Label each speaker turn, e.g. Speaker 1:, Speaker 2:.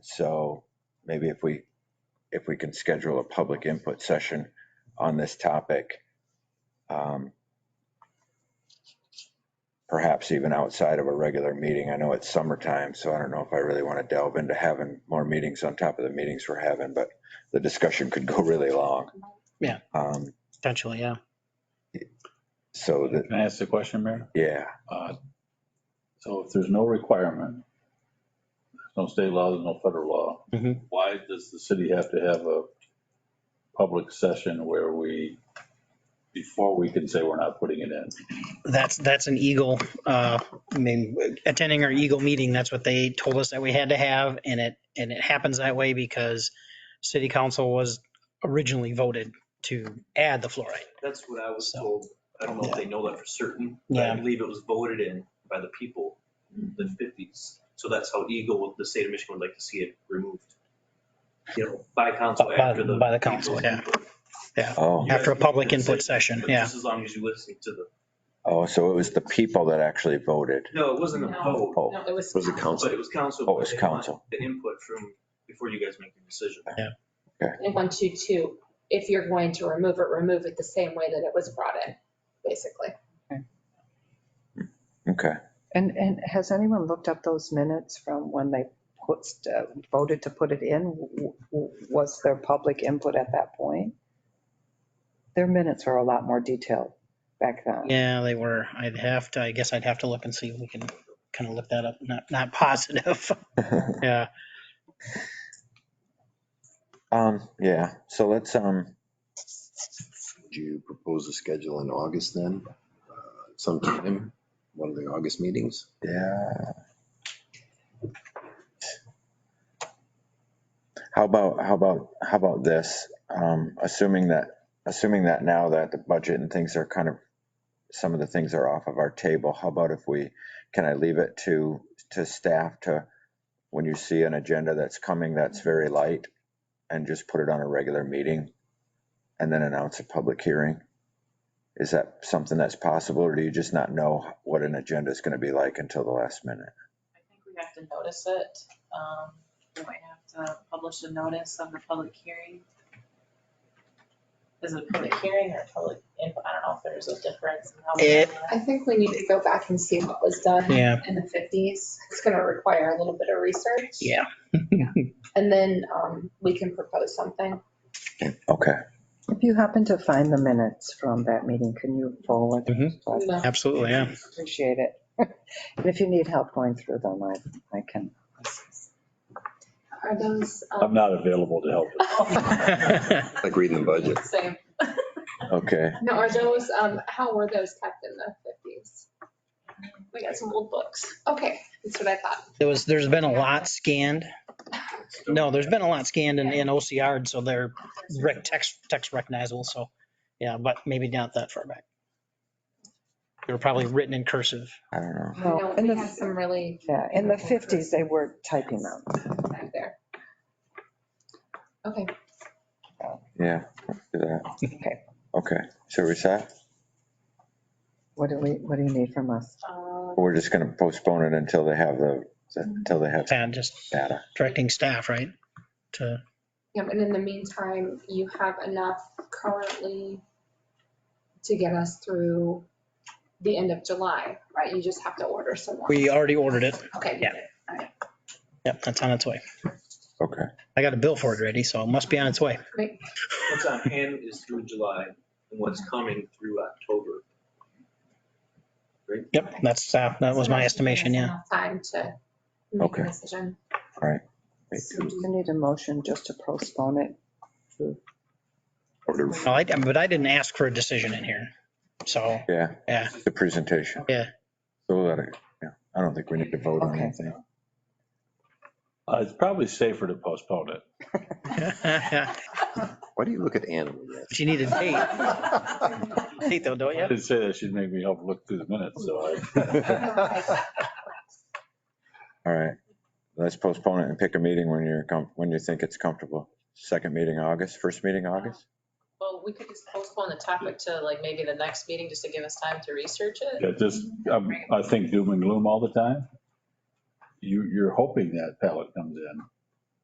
Speaker 1: So maybe if we, if we can schedule a public input session on this topic, um, perhaps even outside of a regular meeting. I know it's summertime, so I don't know if I really want to delve into having more meetings on top of the meetings we're having, but the discussion could go really long.
Speaker 2: Yeah.
Speaker 1: Um,
Speaker 2: potentially, yeah.
Speaker 1: So that,
Speaker 3: Can I ask a question, Mayor?
Speaker 1: yeah,
Speaker 3: Uh, So if there's no requirement, there's no state law, there's no federal law,
Speaker 2: Mhm.
Speaker 3: why does the city have to have a public session where we, before we can say we're not putting it in?
Speaker 2: That's, that's an Eagle, uh, I mean, attending our Eagle meeting, that's what they told us that we had to have. And it, and it happens that way because city council was originally voted to add the fluoride.
Speaker 4: That's what I was
Speaker 2: So-
Speaker 4: told. I don't know if they know that for certain. but
Speaker 2: Yeah. Mm-hmm.
Speaker 4: I believe it was voted in by the people in the fifties. So that's how Eagle, the state of Michigan would like to see it removed. You know, by council
Speaker 2: By- by-
Speaker 4: after the.
Speaker 2: by the council,
Speaker 4: people's
Speaker 2: yeah.
Speaker 4: input.
Speaker 1: oh,
Speaker 4: You guys
Speaker 2: After a
Speaker 4: can
Speaker 2: public
Speaker 4: make that
Speaker 2: input
Speaker 4: decision,
Speaker 2: session,
Speaker 4: but
Speaker 2: yeah.
Speaker 4: Just as long as you listen to the,
Speaker 1: oh, so it was the people that actually voted.
Speaker 4: no, it wasn't a
Speaker 5: No.
Speaker 4: vote,
Speaker 1: Oh,
Speaker 5: No, it was.
Speaker 6: Was it council?
Speaker 4: but it was council.
Speaker 1: Oh, it
Speaker 4: but
Speaker 1: was
Speaker 4: they want
Speaker 1: council.
Speaker 4: The input from, before you guys make the decision.
Speaker 5: And one, two, two, if you're going to remove it, remove it the same way that it was brought in, basically.
Speaker 1: okay.
Speaker 7: And, and has anyone looked up those minutes from when they put, uh, voted to put it in? W- w- Was there public input at that point? Their minutes are a lot more detailed back then.
Speaker 2: Yeah, they were. I'd have to, I guess I'd have to look and see if we can kind of look that up. Not, not positive. Yeah.
Speaker 1: Um, yeah, so let's, um,
Speaker 6: Would you propose a schedule in August then? Uh, Sometime, one of the August meetings?
Speaker 1: yeah. How about, how about, how about this? Um, assuming that, assuming that now that the budget and things are kind of, some of the things are off of our table, how about if we, can I leave it to, to staff to, when you see an agenda that's coming that's very light and just put it on a regular meeting and then announce a public hearing? Is that something that's possible, or do you just not know what an agenda is going to be like until the last minute?
Speaker 8: I think we have to notice it. Um, we might have to publish a notice of the public hearing. Is it a public hearing or a public input? I don't know if there's a difference. in how we
Speaker 2: It-
Speaker 8: do
Speaker 5: I
Speaker 8: that.
Speaker 5: think we need to go back and see what was done
Speaker 2: Yeah.
Speaker 5: in the fifties. It's gonna require a little bit of research.
Speaker 2: Yeah.
Speaker 5: And then, um, we can propose something.
Speaker 1: Okay,
Speaker 7: If you happen to find the minutes from that meeting, can you forward? them to us?
Speaker 5: No.
Speaker 2: Absolutely. Yeah.
Speaker 7: Appreciate it. And if you need help going through them, I, I can.
Speaker 5: Are those? um,
Speaker 3: I'm not available to help.
Speaker 6: Like reading the budget.
Speaker 5: Same.
Speaker 1: okay.
Speaker 5: No, are those, um, how were those kept in the fifties? We got some old books. Okay, that's what I thought.
Speaker 2: There was, there's been a lot scanned. No, there's been a lot scanned in, in OCR, so they're rec- text, text recognizable. So, yeah, but maybe not that far back. They were probably written in cursive.
Speaker 1: I don't know.
Speaker 5: I know
Speaker 7: No, in
Speaker 5: we
Speaker 7: the,
Speaker 5: had some really
Speaker 7: yeah, in the 50s, they were typing them.
Speaker 5: back there. Okay.
Speaker 1: Yeah, let's do that.
Speaker 7: Okay.
Speaker 1: Okay, so we set?
Speaker 7: What do we, what do you need from us?
Speaker 8: Um,
Speaker 1: We're just going to postpone it until they have the, until they have
Speaker 2: And just
Speaker 1: data.
Speaker 2: directing staff, right? To,
Speaker 5: Yep, and in the meantime, you have enough currently to get us through the end of July, right? You just have to order some more.
Speaker 2: we already ordered it.
Speaker 5: Okay.
Speaker 2: yeah. Yep, that's on its way.
Speaker 1: Okay,
Speaker 2: I got a bill for it already, so it must be on its way.
Speaker 4: What's on hand is through July and what's coming through October.
Speaker 2: Yep, that's, uh, that was my estimation, yeah.
Speaker 5: Time to make
Speaker 1: Okay.
Speaker 5: a decision.
Speaker 1: Wait,
Speaker 7: Do you need a motion just to postpone it?
Speaker 6: Order.
Speaker 2: Well, I, but I didn't ask for a decision in here. So,
Speaker 1: yeah.
Speaker 2: Yeah.
Speaker 1: The presentation.
Speaker 2: Yeah.
Speaker 1: So that, yeah, I don't think we need to vote on
Speaker 7: Okay.
Speaker 1: anything.
Speaker 3: Uh, It's probably safer to postpone it.
Speaker 2: but
Speaker 6: Why do you look at Anna when you ask?
Speaker 2: you need a date, date though, don't
Speaker 3: I
Speaker 2: you?
Speaker 3: did say that she'd make me help look through the minutes, so I.
Speaker 1: All right, let's postpone it and pick a meeting when you're, com- when you think it's comfortable. Second meeting August, first meeting August?
Speaker 8: Well, we could just postpone the topic to like maybe the next meeting, just to give us time to research it.
Speaker 3: Yeah, just, um, I think doom and gloom all the time. You, you're hoping that pallet comes in.